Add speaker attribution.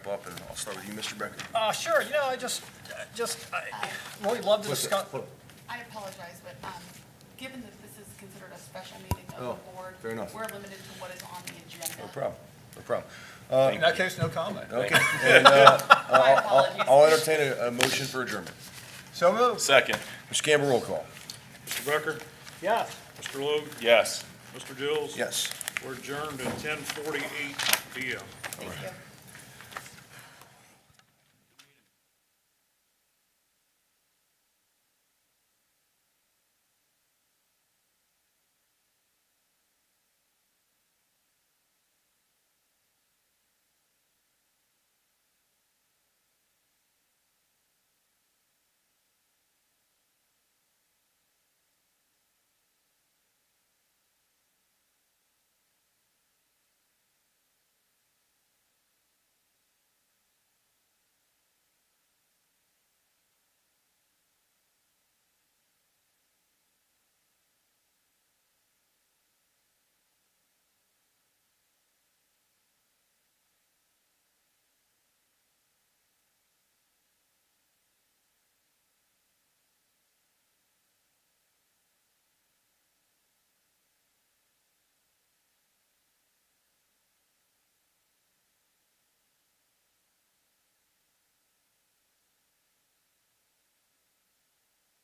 Speaker 1: up, and I'll start with you, Mr. Becker.
Speaker 2: Uh, sure, you know, I just, just, I, we'd love to discuss,
Speaker 3: I apologize, but um, given that this is considered a special meeting of the
Speaker 1: Oh,
Speaker 3: board,
Speaker 1: fair enough.
Speaker 3: we're limited to what is on the agenda.
Speaker 1: No problem, no problem.
Speaker 2: in that case, no comment.
Speaker 1: Okay, and uh,
Speaker 3: My
Speaker 1: I'll
Speaker 3: apologies.
Speaker 1: I'll entertain a, a motion for adjournment.
Speaker 2: So moved.
Speaker 4: Second.
Speaker 1: Mr. Campbell, roll call.
Speaker 4: Mr. Becker?
Speaker 2: Yeah.
Speaker 4: Mr. Logue? Yes. Mr. Dills?
Speaker 1: Yes.
Speaker 4: We're adjourned at ten forty-eight PM.
Speaker 3: Thank you.